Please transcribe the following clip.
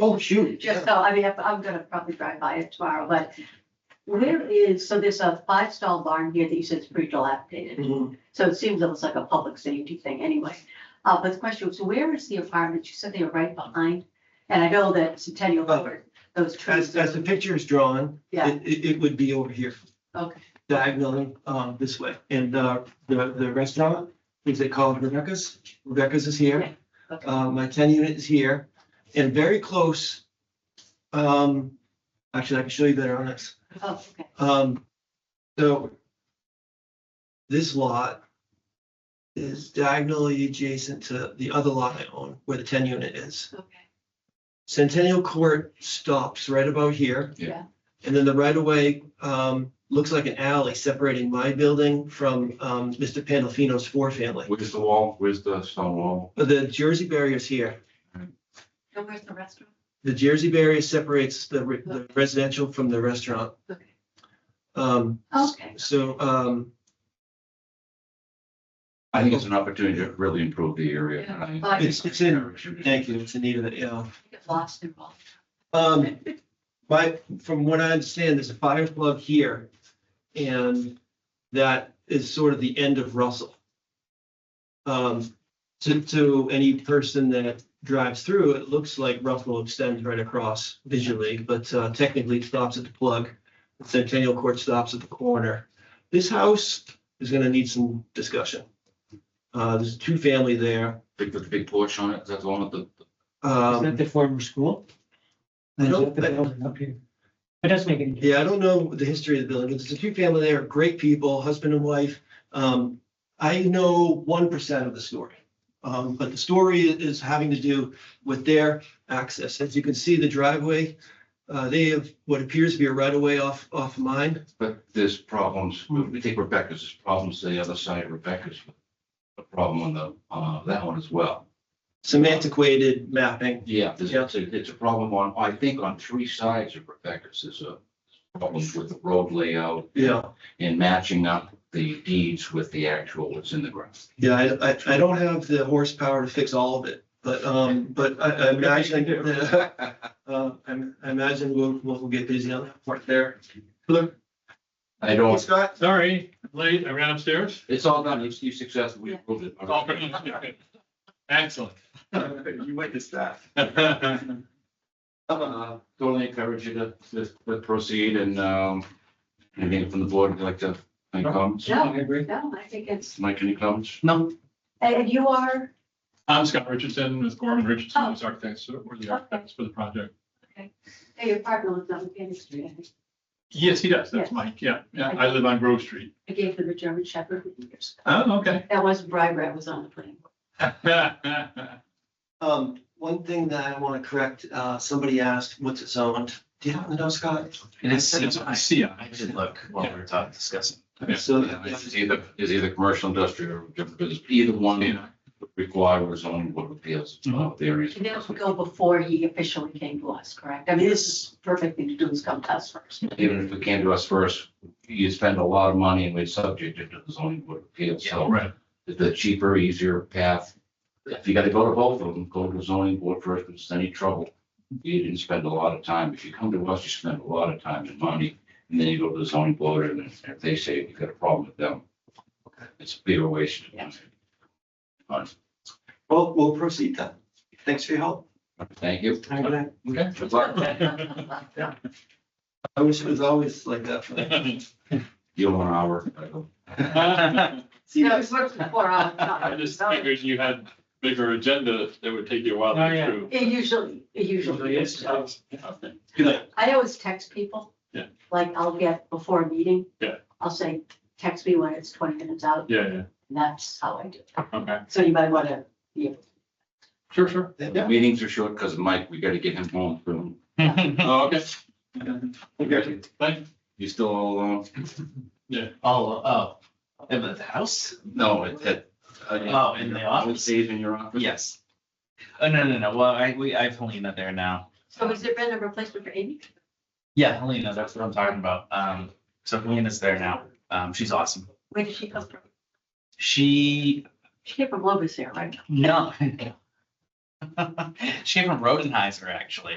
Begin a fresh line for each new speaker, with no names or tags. Oh, shoot.
Just so, I mean, I'm- I'm gonna probably drive by it tomorrow, but where is, so there's a five stall barn here that you said is pretty dilapidated.
Mhm.
So it seems almost like a public safety thing anyway. Uh, but the question was, where is the apartment? You said they were right behind. And I know that Centennial
Oh.
Road, those trees.
As, as the picture is drawn,
Yeah,
it, it, it would be over here
okay,
diagonally, um, this way. And, uh, the, the restaurant, is it called Rebecca's? Rebecca's is here.
okay.
Uh, my ten unit is here and very close. Um, actually, I can show you better on this.
Oh, okay.
Um, so this lot is diagonally adjacent to the other lot I own, where the ten unit is.
Okay.
Centennial Court stops right about here.
Yeah. Yeah.
And then the right of way, um, looks like an alley separating my building from, um, Mr. Pandolfino's four family.
Where's the wall? Where's the stone wall?
But the Jersey barrier's here.
And where's the restaurant?
The Jersey barrier separates the re- the residential from the restaurant.
Okay.
Um,
Okay,
so, um,
I think it's an opportunity to really improve the area. and I-
It's- it's in- thank you, it's Anita, that, yeah.
I get lost in all.
Um, my, from what I understand, there's a fire plug here. And that is sort of the end of Russell. Um, to, to any person that drives through, it looks like Russell extends right across visually, but uh, technically it stops at the plug. Centennial Court stops at the corner. This house is gonna need some discussion. Uh, there's a two-family there.
Big, with the big porch on it, is that the one with the,
Is that
Um,
the former school?
I don't-
Is that the building up here? It does make any.
Yeah, I don't know the history of the building, but there's a few family there, great people, husband and wife. Um, I know one percent of the story. Um, but the story is having to do with their access. As you can see, the driveway, uh, they have what appears to be a right of way off, off of mine.
but there's problems,
Hmm.
we take Rebecca's, there's problems to the other side of Rebecca's. A problem on the, uh, that one as well.
Some antiquated mapping.
Yeah, there's,
Yeah.
it's a, it's a problem on, I think on three sides of Rebecca's, there's a problem with the road layout
Yeah,
and matching up the deeds with the actual what's in the ground.
yeah, I, I, I don't have the horsepower to fix all of it, but, um, but I, I imagine that, uh, I'm- I imagine we'll, we'll get busy on that part there. Look,
I don't,
Scott,
Sorry, late, I ran upstairs.
it's all done, it's, you successful, we approved it.
Excellent.
You went to staff.
Thank
Uh, Totally encourage you to, to- to proceed and, um, anything from the board, would you like to, any comments?
No,
agree.
no, I think it's,
Mike, any comments?
No.
and and you are,
I'm Scott Richardson, Ms. Gorman Richardson, I'm the architect, so we're the architects for the project.
hey, your partner lives on Candy Street. I think.
Yes, he does, that's Mike, yeah, yeah, I live on Grove Street.
I gave them a German Shepherd for years.
Oh, okay.
That was Brian Brad was on the plane.
Um, one thing that I want to correct, uh, somebody asked, what's it zoned? Do you happen to know, Scott?
It is,
It's
I
a CI.
did look while we were talking, discussing.
Yeah.
So,
Yeah, It's either, it's either commercial, industrial, or different business, either one would require a zoning board of appeals, uh, there is.
And that would go before he officially came to us, correct? I mean, this is the perfect thing to do is come to us first.
Even if it came to us first, you spend a lot of money and we subject it to the zoning board of appeals, so
Right,
the cheaper, easier path. If you gotta go to both of them, go to the zoning board first, if it's any trouble, you didn't spend a lot of time, if you come to us, you spend a lot of time and money. And then you go to the zoning board, and if- if they say you've got a problem with them, it's a bigger waste.
Yeah.
Fine.
well, we'll proceed then. Thanks for your help.
Thank you.
okay.
Good luck.
I wish it was always like that for me.
You want an hour? I go.
See you
No,
guys.
it works before I.
I just figured you had bigger agenda that would take you a while
Oh,
to
yeah.
get through.
It usually, it usually is.
Good night.
I always text people.
Yeah.
Like I'll get before a meeting.
Yeah.
I'll say, text me when it's twenty minutes out.
Yeah,
And that's how I do it.
yeah, okay,
So you might want to,
sure, sure.
The Meetings are short because Mike, we gotta get him home soon.
Oh, Okay, thank,
You still all alone?
Oh, oh, in the house?
No, it, it.
Oh, in the
I would
office?
say it's in your office.
Yes. Oh, no, no, no. Well, I, we, I have Helena there now.
so has there been a replacement for Amy?
Yeah, Helena, that's what I'm talking about. Um, so Helena's there now. Um, she's awesome.
Where did she come from?
She,
She came from Lobos there, right?
no. She came from Rodenheiser, actually.